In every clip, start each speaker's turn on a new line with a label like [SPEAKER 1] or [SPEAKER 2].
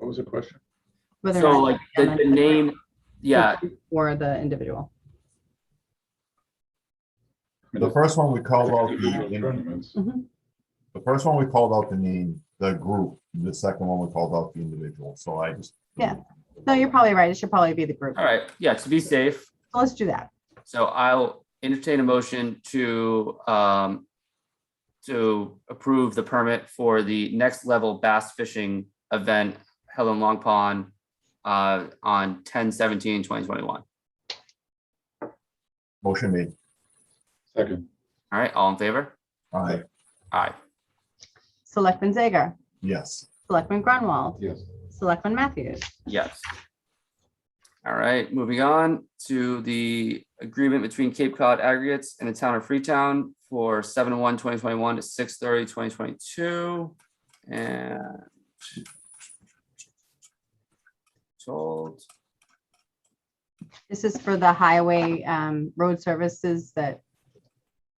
[SPEAKER 1] was the question?
[SPEAKER 2] whether
[SPEAKER 3] So
[SPEAKER 2] or
[SPEAKER 3] like the,
[SPEAKER 2] not-
[SPEAKER 3] the name, yeah,
[SPEAKER 2] or the individual.
[SPEAKER 1] I mean,
[SPEAKER 4] The first one we called out,
[SPEAKER 1] individual
[SPEAKER 4] the
[SPEAKER 1] tournaments.
[SPEAKER 4] the first one we called out the name, the group, the second one we called out the individual, so I just.
[SPEAKER 2] Yeah. No, you're probably right. It should probably be the group.
[SPEAKER 3] all right, yeah, to be safe.
[SPEAKER 2] So let's do that.
[SPEAKER 3] So I'll entertain a motion to, um, to approve the permit for the next level bass fishing event held in Long Pond uh, on 10-17-2021.
[SPEAKER 4] Motion made,
[SPEAKER 1] Second,
[SPEAKER 3] All right, all in favor?
[SPEAKER 4] aye,
[SPEAKER 3] Aye.
[SPEAKER 2] Selectman Zager,
[SPEAKER 4] yes,
[SPEAKER 2] Selectman Grunwald,
[SPEAKER 1] yes,
[SPEAKER 2] Selectman Matthews.
[SPEAKER 3] Yes. All right, moving on to the agreement between Cape Cod Aggregates and the town of Freetown for seven one 2021 to 2022, and told,
[SPEAKER 2] This is for the highway um, road services that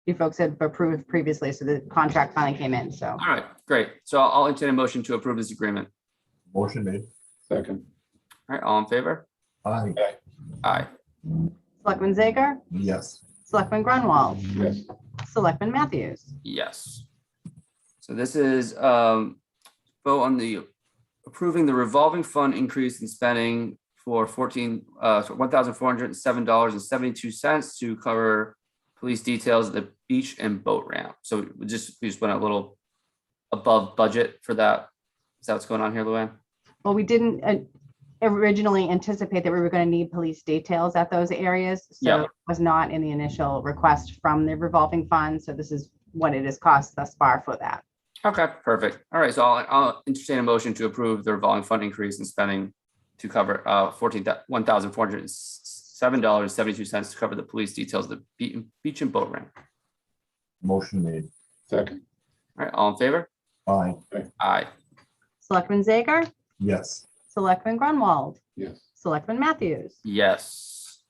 [SPEAKER 2] you folks had approved previously, so the contract finally came in, so.
[SPEAKER 3] all right, great. So I'll I'll entertain a motion to approve this agreement.
[SPEAKER 4] motion made,
[SPEAKER 1] second,
[SPEAKER 3] All right, all in favor?
[SPEAKER 4] aye,
[SPEAKER 3] Aye.
[SPEAKER 2] Selectman Zager,
[SPEAKER 4] yes,
[SPEAKER 2] Selectman Grunwald,
[SPEAKER 1] Um, yes,
[SPEAKER 2] Selectman Matthews.
[SPEAKER 3] Yes. So this is um vote on the approving the revolving fund increase in spending for fourteen uh one thousand four hundred and seven dollars and seventy-two cents to cover police details at the beach and boat ramp. So we just we just went a little above budget for that. Is that what's going on here, Luann?
[SPEAKER 2] Well, we didn't uh, originally anticipate that we were going to need police details at those areas. So
[SPEAKER 3] Yeah.
[SPEAKER 2] it was not in the initial request from the revolving fund. So this is what it has cost thus far for that.
[SPEAKER 3] Okay, perfect. All right, so I'll I'll entertain a motion to approve the revolving fund increase in spending to cover uh fourteen, one thousand four hundred and seven dollars seventy-two cents to cover the police details, of the be- beach and boat ramp.
[SPEAKER 4] motion made,
[SPEAKER 1] second,
[SPEAKER 3] All right, all in favor?
[SPEAKER 4] aye,
[SPEAKER 3] Aye.
[SPEAKER 2] Selectman Zager,
[SPEAKER 4] yes,
[SPEAKER 2] Selectman Grunwald,
[SPEAKER 1] yes,
[SPEAKER 2] Selectman Matthews.
[SPEAKER 3] Yes.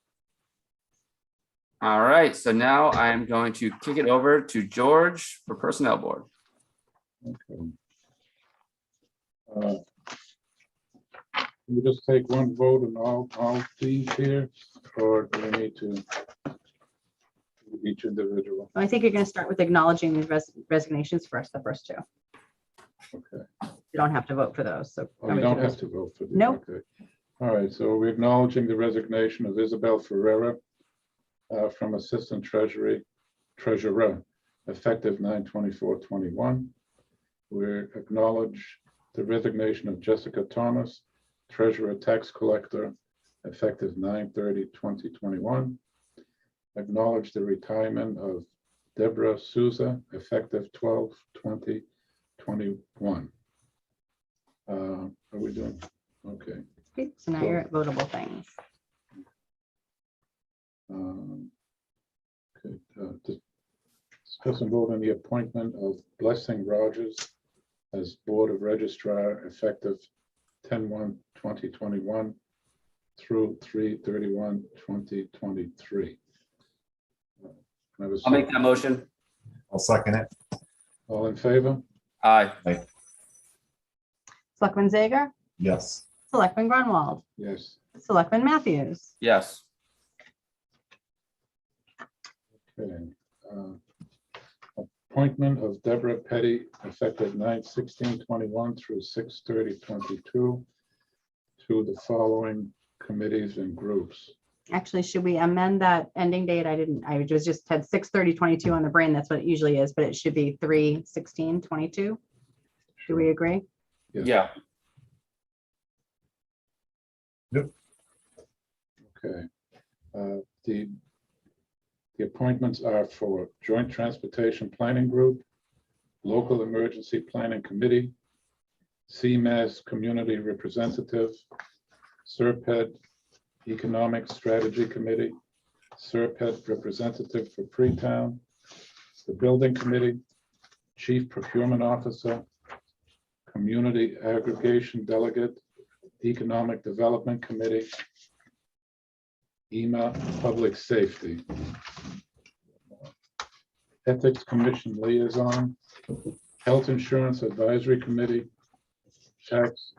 [SPEAKER 3] All right, so now I'm going to kick it over to George for Personnel Board.
[SPEAKER 1] okay. Uh, Can we just take one vote on all, all these here, or do we need to? do Each individual,
[SPEAKER 2] I think you're going to start with acknowledging these res- resignations first, the first two.
[SPEAKER 1] okay.
[SPEAKER 2] You don't have to vote for those. So.
[SPEAKER 1] Oh, we don't have to vote for this.
[SPEAKER 2] Nope.
[SPEAKER 1] okay. All right, so we're acknowledging the resignation of Isabel Ferrera uh, from Assistant Treasury Treasurer, effective 9 21 We acknowledge the resignation of Jessica Thomas, Treasurer Tax Collector, effective 9 2021 Acknowledge the retirement of Deborah Souza, effective 12 21 uh, Are we doing, okay.
[SPEAKER 2] Okay, So now you're at votable things.
[SPEAKER 1] um, okay, uh, dis- Discuss and vote on the appointment of Blessing Rogers as Board of Registrar effective 10-1-2021 through 3 31 2023.
[SPEAKER 3] I'll make that motion.
[SPEAKER 4] I'll second it,
[SPEAKER 1] All in favor?
[SPEAKER 3] Aye.
[SPEAKER 2] Selectman Zager,
[SPEAKER 4] yes,
[SPEAKER 2] Selectman Grunwald,
[SPEAKER 1] Yes.
[SPEAKER 2] Selectman Matthews.
[SPEAKER 3] Yes.
[SPEAKER 1] Okay, uh, Appointment of Deborah Petty effective 9/16/21 through 6/30/22 to the following committees and groups.
[SPEAKER 2] Actually, should we amend that ending date? I didn't, I was just had six thirty twenty-two on the brain. That's what it usually is, but it should be three sixteen twenty-two. Do we agree?
[SPEAKER 3] Yeah.
[SPEAKER 1] Okay. Uh, The, the appointments are for Joint Transportation Planning Group, Local Emergency Planning Committee, CMAS Community Representative, Serped E Economic Strategy Committee, Serped E Representative for Freetown, the Building Committee, Chief Procurement Officer, Community Aggregation Delegate, Economic Development Committee, EMA E Public Safety. Ethics Commission Liaison, Health Insurance Advisory Committee, Tax